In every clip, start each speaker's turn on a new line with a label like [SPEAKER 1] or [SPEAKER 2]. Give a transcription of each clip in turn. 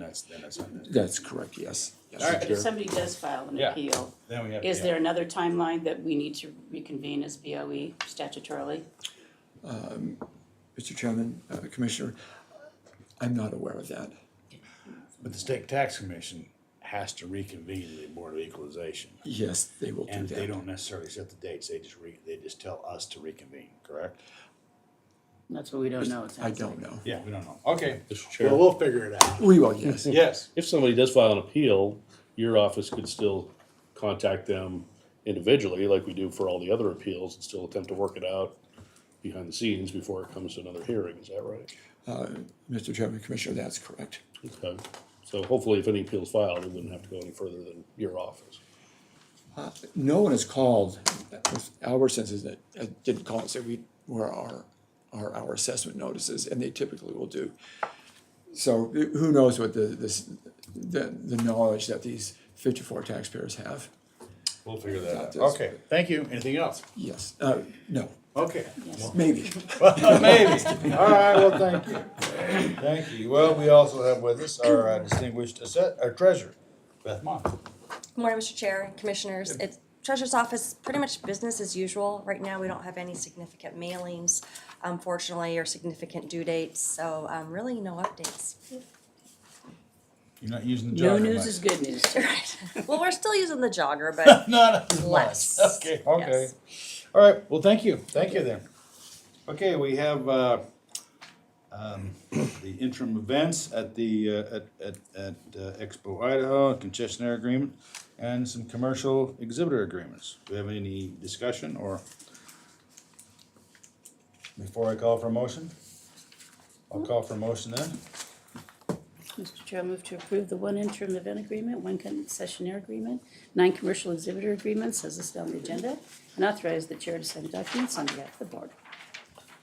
[SPEAKER 1] that's, then that's on the.
[SPEAKER 2] That's correct, yes. Yes,
[SPEAKER 1] All right.
[SPEAKER 2] Chair.
[SPEAKER 3] If somebody does file an
[SPEAKER 1] Yeah.
[SPEAKER 3] appeal,
[SPEAKER 1] Then we have.
[SPEAKER 3] is there another timeline that we need to reconvene as BOE statutorily?
[SPEAKER 2] Mr. Chairman, uh, Commissioner, I'm not aware of that.
[SPEAKER 1] But the state tax commission has to reconvene the board of equalization.
[SPEAKER 2] Yes, they will do
[SPEAKER 1] And they
[SPEAKER 2] that.
[SPEAKER 1] don't necessarily set the dates, they just re, they just tell us to reconvene, correct?
[SPEAKER 3] That's what we don't know, it
[SPEAKER 2] I
[SPEAKER 3] sounds
[SPEAKER 2] don't
[SPEAKER 3] like.
[SPEAKER 2] know.
[SPEAKER 1] Yeah, we don't know. Okay,
[SPEAKER 4] Mr.
[SPEAKER 1] well,
[SPEAKER 4] Chair,
[SPEAKER 1] we'll figure it out.
[SPEAKER 2] We will, yes.
[SPEAKER 1] Yes.
[SPEAKER 4] if somebody does file an appeal, your office could still contact them individually, like we do for all the other appeals, and still attempt to work it out behind the scenes before it comes to another hearing, is that right?
[SPEAKER 2] Mr. Chairman, Commissioner, that's correct.
[SPEAKER 4] Okay, so hopefully if any appeals filed, it wouldn't have to go any further than your office.
[SPEAKER 1] Uh,
[SPEAKER 2] No one has called, Albertsons is, that- uh, didn't call and say, we, where are, are our assessment notices? And they typically will do. So uh, who knows what the, this, the, the knowledge that these fifty-four taxpayers have?
[SPEAKER 1] We'll figure that out.
[SPEAKER 2] That's-
[SPEAKER 1] Okay, thank you. Anything else?
[SPEAKER 2] Yes, uh, no,
[SPEAKER 1] Okay.
[SPEAKER 2] maybe.
[SPEAKER 1] Maybe. All right, well, thank you. Thank you. Well, we also have with us our uh, distinguished asset, our treasurer, Beth Mont.
[SPEAKER 5] Good Morning, Mr. Chair, Commissioners. It's Treasurer's Office, pretty much business as usual. Right now, we don't have any significant mailings, unfortunately, or significant due dates, so um, really no updates.
[SPEAKER 1] You're not using the
[SPEAKER 3] No
[SPEAKER 1] jargon
[SPEAKER 3] news
[SPEAKER 1] much.
[SPEAKER 3] is good news.
[SPEAKER 5] Well, we're still using the jogger, but
[SPEAKER 1] Not as much.
[SPEAKER 5] less.
[SPEAKER 1] Okay, okay.
[SPEAKER 5] Yes.
[SPEAKER 1] All right, well, thank you. Thank you then. Okay, we have, uh, um, the interim events at the, uh, at, at, at uh, Expo Idaho, concessionaire agreement, and some commercial exhibitor agreements. Do we have any discussion or? Before I call for a motion? I'll call for a motion then.
[SPEAKER 3] Mr. Chair, I move to approve the one interim event agreement, one concessionaire agreement, nine commercial exhibitor agreements as listed on the agenda, and authorize the chair to sign documents on behalf of the board.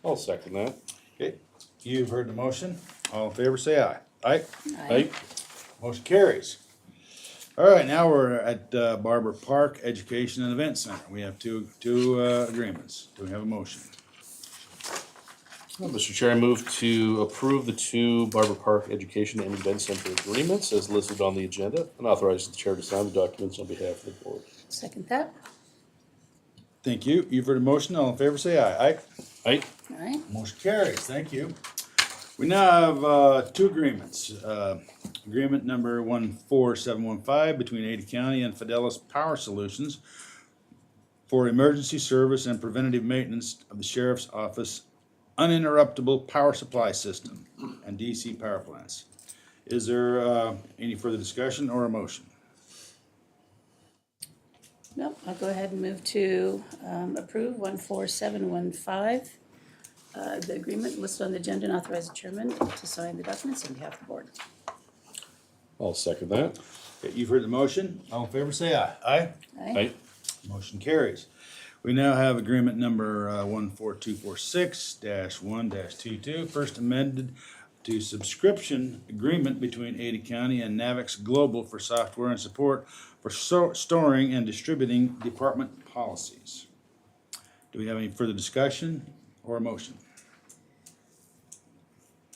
[SPEAKER 4] I'll second that.
[SPEAKER 1] Okay, you've heard the motion. All in favor, say aye. Aye?
[SPEAKER 4] Aye.
[SPEAKER 1] Motion carries. All right, now we're at uh, Barber Park Education and Event Center. We have two, two uh, agreements. Do we have a motion?
[SPEAKER 4] Well, Mr. Chair, I move to approve the two Barber Park Education and Event Center agreements as listed on the agenda and authorize the chair to sign the documents on behalf of the board.
[SPEAKER 3] Second that,
[SPEAKER 1] Thank you. You've heard a motion. All in favor, say aye. Aye.
[SPEAKER 4] Aye.
[SPEAKER 3] all right?
[SPEAKER 1] Motion carries. Thank you. We now have uh, two agreements. Uh, Agreement number one four seven one five between Ada County and Fidelis Power Solutions for emergency service and preventative maintenance of the sheriff's office uninterruptible power supply system and DC power plants. Is there uh, any further discussion or a motion?
[SPEAKER 3] Nope, I'll go ahead and move to um, approve 14715, uh, the agreement listed on the agenda and authorize the chairman to sign the documents on behalf of the board.
[SPEAKER 4] I'll second that.
[SPEAKER 1] Okay, You've heard the motion. All in favor, say aye. Aye.
[SPEAKER 4] Aye.
[SPEAKER 1] Motion carries. We now have agreement number uh, one four two four six one 22 first amended to subscription agreement between Ada County and Navix Global for software and support for so- storing and distributing department policies. Do we have any further discussion or a motion?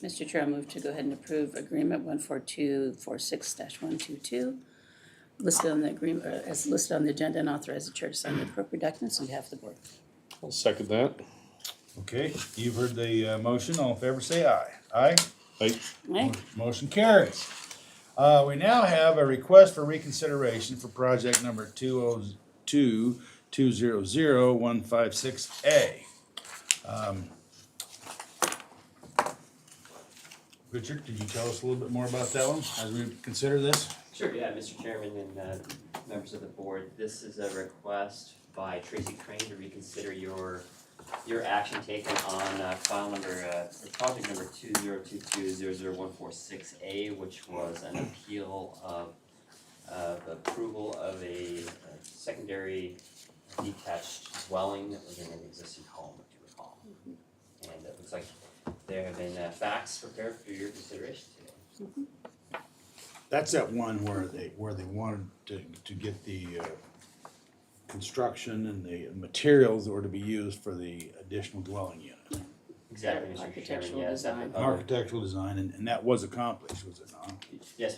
[SPEAKER 3] Mr. Chair, I move to go ahead and approve agreement 14246-122, listed on the agreement, uh, as listed on the agenda and authorize the chair to sign the appropriate documents on behalf of the board.
[SPEAKER 4] I'll second that.
[SPEAKER 1] Okay, you've heard the uh, motion. All in favor, say aye. Aye?
[SPEAKER 4] Aye.
[SPEAKER 3] Aye.
[SPEAKER 1] Motion carries. Uh, we now have a request for reconsideration for project number two oh two, two zero zero, one five six A. Um, Richard, could you tell us a little bit more about that one as we consider this?
[SPEAKER 6] Sure, yeah, Mr. Chairman and uh, members of the board, this is a request by Tracy Crane to reconsider your, your action taken on uh, file number, uh, or project number two zero two two zero zero one four six A, which was an appeal of, of approval of a uh, secondary detached dwelling that was in an existing home, if you recall.
[SPEAKER 3] Mm-hmm.
[SPEAKER 6] And it looks like there have been uh, facts prepared for your consideration today.
[SPEAKER 1] That's that one where they, where they wanted to, to get the, uh, construction and the materials that were to be used for the additional dwelling unit.
[SPEAKER 3] Or
[SPEAKER 6] Exactly, Mr. Chairman,
[SPEAKER 3] architectural
[SPEAKER 6] yes, that
[SPEAKER 3] design.
[SPEAKER 6] proposed-
[SPEAKER 1] Architectural design, and, and that was accomplished, was it not?
[SPEAKER 6] yes,